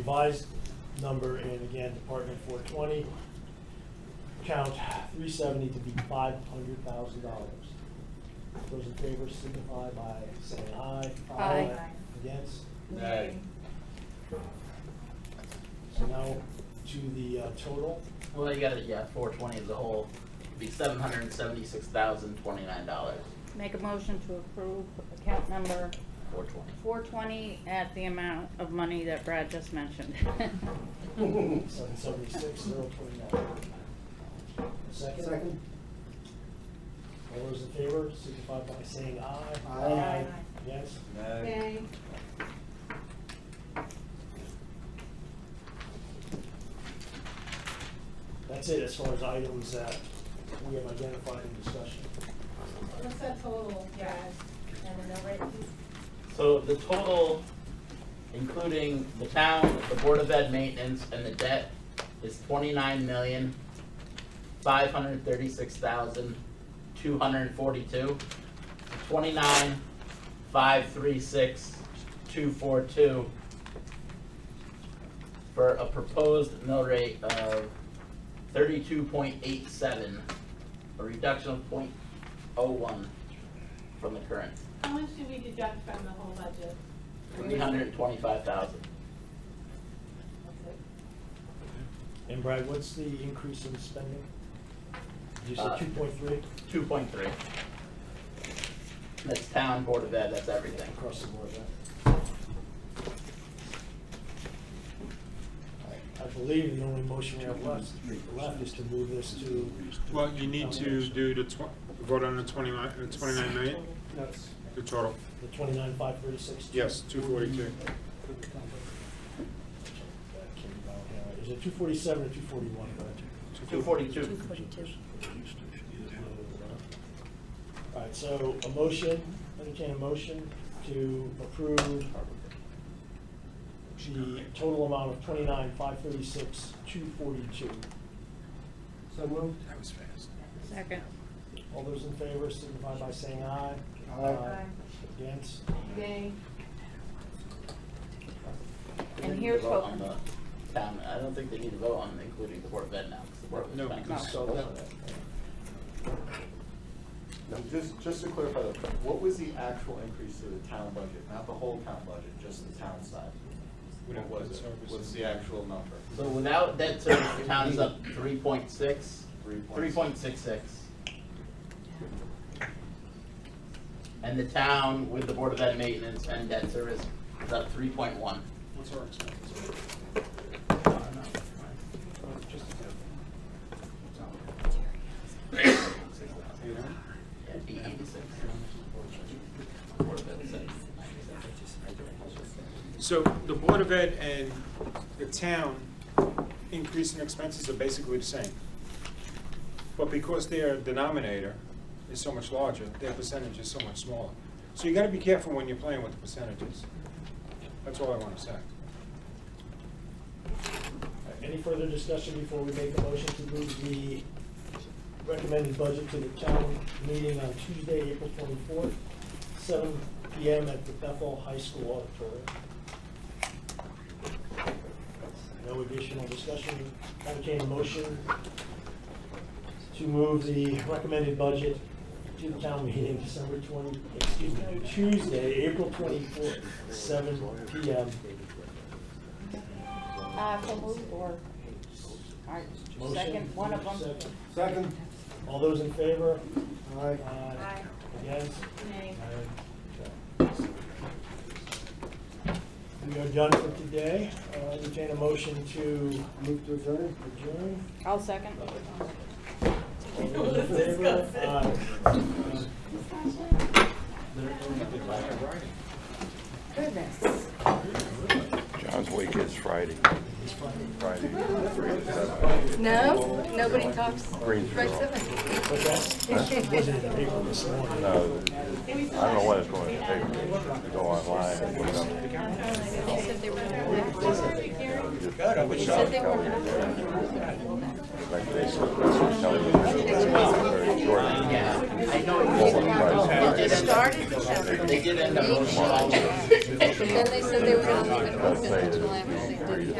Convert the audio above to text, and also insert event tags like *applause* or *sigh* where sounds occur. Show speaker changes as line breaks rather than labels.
revised number in, again, Department four twenty, count three seventy to be five hundred thousand dollars. Those in favor signify by saying aye.
Aye.
Against?
Nay.
So now to the uh, total.
Well, you gotta, yeah, four twenty as a whole, it'd be seven hundred and seventy-six thousand twenty-nine dollars,
Make a motion to approve account number
four twenty.
four twenty at the amount of money that Brad just mentioned.
Seven seventy-six, zero twenty-nine. Second?
Second.
All those in favor, signify by saying aye.
Aye.
Against?
Nay.
That's it as far as items that we have identified in discussion.
What's that total, guys? And the number, please?
So the total, including the town, the Board of Ed maintenance, and the debt, is twenty-nine million, five hundred thirty-six thousand, two hundred and forty-two. Twenty-nine, five, three, six, two, four, two. For a proposed mill rate of thirty-two point eight seven, a reduction of point oh one from the current.
How much do we deduct from the whole budget?
Three hundred and twenty-five thousand.
And Brad, what's the increase in spending? You said
Uh,
two point three
Two point three. That's town, board of ed, that's everything.
across the board, right? I believe the only motion we have left, left is to move this to,
Well, you need to do the tw- vote on the twenty-nine, the twenty-nine million,
that's
the total.
the twenty-nine, five thirty-six.
Yes, two forty-two.
Is it two forty-seven or two forty-one,
Two forty-two.
All right, so a motion, entertain a motion to approve the total amount of twenty-nine, five thirty-six, two forty-two.
So moved.
Second.
All those in favor signify by saying aye.
Aye.
Against?
Nay.
And here's
Vote
what,
on the Town, I don't think they need to vote on including the board of ed now, 'cause the board of ed's
No,
back.
because-
So now,
Now, just, just to clarify, though, what was the actual increase to the town budget? Not the whole town budget, just the town side? What was it? What's the actual number?
So without debt service, the town is up three point six,
Three
three point six six. And the town with the board of ed maintenance and debt service is up three point one.
What's our expenses? You know?
Yeah, it'd be eighty-six. Board of Ed's at 96.
So the Board of Ed and the town increase in expenses are basically the same. But because their denominator is so much larger, their percentage is so much smaller. So you gotta be careful when you're playing with the percentages. That's all I wanna say.
All right, Any further discussion before we make a motion to move the recommended budget to the town meeting on Tuesday, April twenty-fourth, seven P M at the Bethel High School Auditorium? No additional discussion, entertain a motion to move the recommended budget to the town meeting December twenty, excuse me, Tuesday, April twenty-fourth, seven P M.
uh, so move or, all right, second, one of them.
Second.
All those in favor?
Aye.
Aye. Against?
Nay.
Aye. We are done for today. Uh, Entertain a motion to
Move to adjourn.
*laughs*
adjourn.
I'll second.
All those in favor? Aye. Uh,
Goodness.
John's week is Friday. Friday. three to seven.
No, nobody talks.
Greensboro.
But
*laughs*
that wasn't in the paper this morning.
No, I don't know what it's going to take to go online and put it up.
They said they were gonna. They said they were gonna.
Like they said, that's what telling you. Very short.
Yeah, I know.
Over price.
They
It
did end up-
started December.
They did end up.
Then they said they were gonna leave it
Let's
open until after
say it's
they
three
did
to